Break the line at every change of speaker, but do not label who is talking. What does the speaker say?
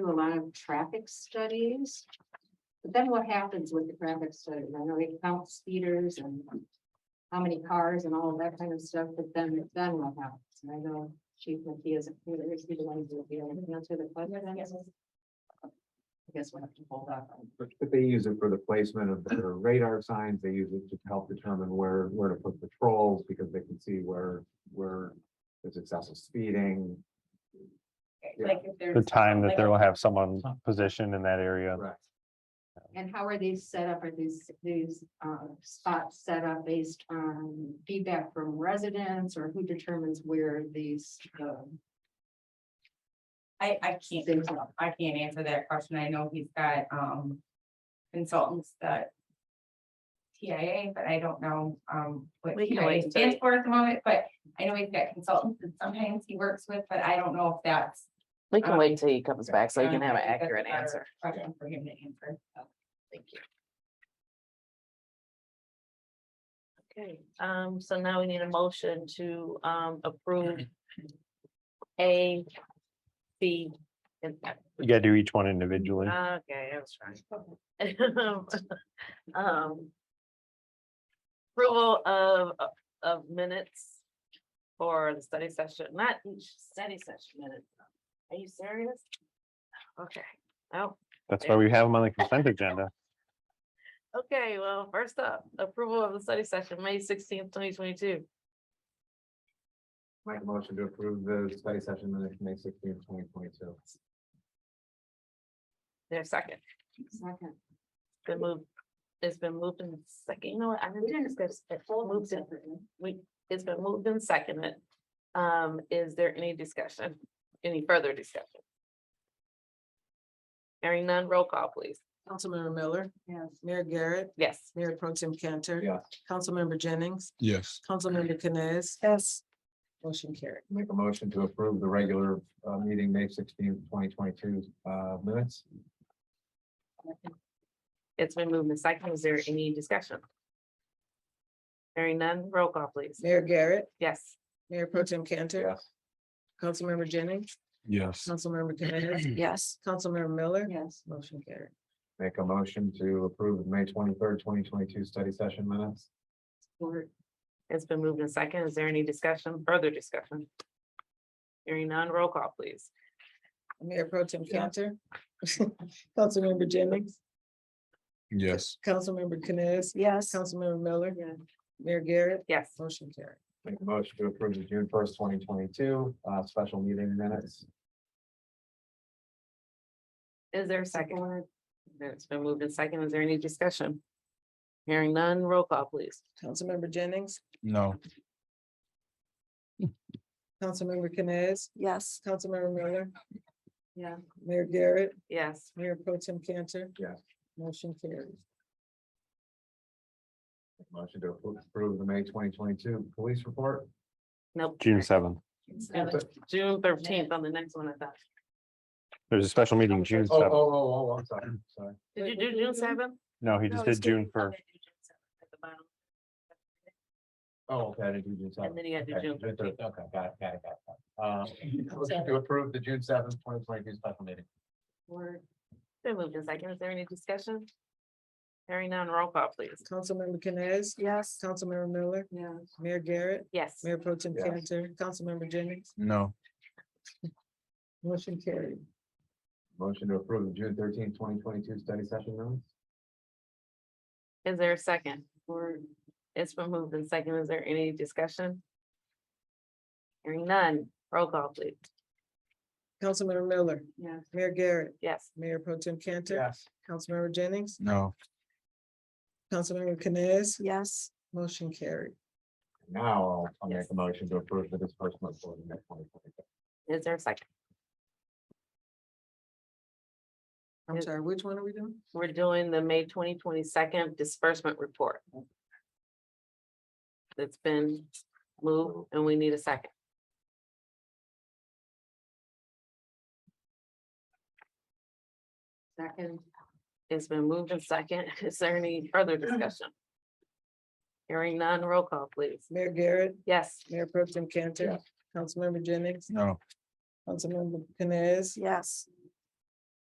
do a lot of traffic studies. But then what happens with the traffic studies? I know they count speeders and how many cars and all of that kind of stuff, but then, then what happens? And I know Chief McKee is, he's the one who will be able to answer the question. I guess we'll have to hold up.
But but they use it for the placement of their radar signs, they use it to help determine where, where to put patrols, because they can see where, where there's excessive speeding. Yeah.
Like if there's.
the time that
like-
they will have someone positioned in that area.
Right.
And how are these set up? Are these, these, uh, spots set up based on feedback from residents or who determines where these, um,
I, I
Things
can't,
like-
I can't answer that question. I know he's got, um, consultants that. TIA, but I don't know, um, what
We can
TIA
always
stands for at the moment, but I know he's got consultants that sometimes he works with, but I don't know if that's.
We can wait till he comes
Okay.
back so you can have an
I think that's
accurate
a better
answer.
Question for him to answer.
Thank you. Okay, um, so now we need a motion to, um, approve A, B, and
You gotta do each one individually.
Uh,
Okay, I was trying. Um. Approval of, of- of minutes for the study session, not each study session minute. Are you serious? Okay, oh,
That's why we have them on the consent agenda.
okay, well, first up, approval of the study session, May sixteenth, twenty twenty-two.
Make a motion to approve the study session minutes, May sixteenth, twenty twenty-two.
There's second,
second?
been moved, it's been moved in second, you know what, I didn't even discuss it, moved in, we, it's been moved and seconded. Um, is there any discussion, any further discussion? Hearing none, roll call please.
Councilmember Miller,
Yes.
Mayor Garrett,
Yes,
Mayor Pro Tem Cantor.
Yeah.
Councilmember Jennings,
Yes,
Councilmember Canes. Yes. Motion carried.
Make a motion to approve the regular uh meeting, May sixteenth, twenty twenty-two uh minutes.
it's been moved and seconded. Is there any discussion? Hearing none, roll call please.
Mayor Garrett,
Yes,
Mayor Pro Tem Cantor,
Yes.
Councilmember Jennings,
yes,
Councilmember Canes,
yes,
Councilmember Miller.
Yes,
Motion carried.
Make a motion to approve the May twenty-third, twenty twenty-two study session minutes.
or
it's been moved and seconded. Is there any discussion, further discussion? Hearing none, roll call please.
Mayor Pro Tem Cantor, Councilmember Jennings,
yes,
Councilmember Canes. Yes. Councilmember Miller,
Yeah.
Mayor Garrett,
Yes,
motion carried.
Make a motion to approve the June first, twenty twenty-two uh special meeting minutes.
is there a second? It's been moved and seconded. Is there any discussion? Hearing none, roll call please.
Councilmember Jennings,
no,
Councilmember Canes. Yes. Councilmember Miller,
yeah.
Mayor Garrett,
Yes,
Mayor Pro Tem Cantor.
Yes.
Motion carries.
Motion to appro- approve the May twenty twenty-two police report.
nope.
June seventh.
That was June thirteenth on the next one, I thought.
There's a special meeting June
Oh, oh,
seventh.
oh, oh, I'm sorry, sorry.
Did you
Wait,
do
what
June
was it?
seventh?
No, he just did June first.
Oh, okay, I did do June
And
seventh.
then he had to
Okay,
June
June
thirteenth.
third, okay, got it, got it, got it. Uh, motion to approve the June seventh, twenty twenty-two special meeting.
or-
Been moved in second. Is there any discussion? Hearing none, roll call please.
Councilmember Canes. Yes. Councilmember Miller,
yeah.
Mayor Garrett,
Yes,
Mayor Pro Tem
Yes.
Cantor, Councilmember Jennings,
no,
motion carried.
Motion to approve the June thirteenth, twenty twenty-two study session minutes.
is there a second? Or it's been moved in second. Is there any discussion? Hearing none, roll call please.
Councilmember Miller,
Yeah.
Mayor Garrett,
Yes,
Mayor Pro Tem Cantor, Councilmember Jennings,
no,
Councilmember Canes. Yes. Motion carried.
Now I'll- I'll make
Yes.
a motion to approve the disbursement for the May twenty twenty-two.
is there a second?
I'm
Yes.
sorry, which one are we doing?
We're doing the May twenty twenty-second disbursement report. It's been moved and we need a second.
Second,
It's been moved and second. Is there any further discussion? Hearing none, roll call please.
Mayor Garrett,
Yes,
Mayor Pro Tem Cantor,
Yes.
Councilmember Jennings,
no,
Councilmember Canes. Yes.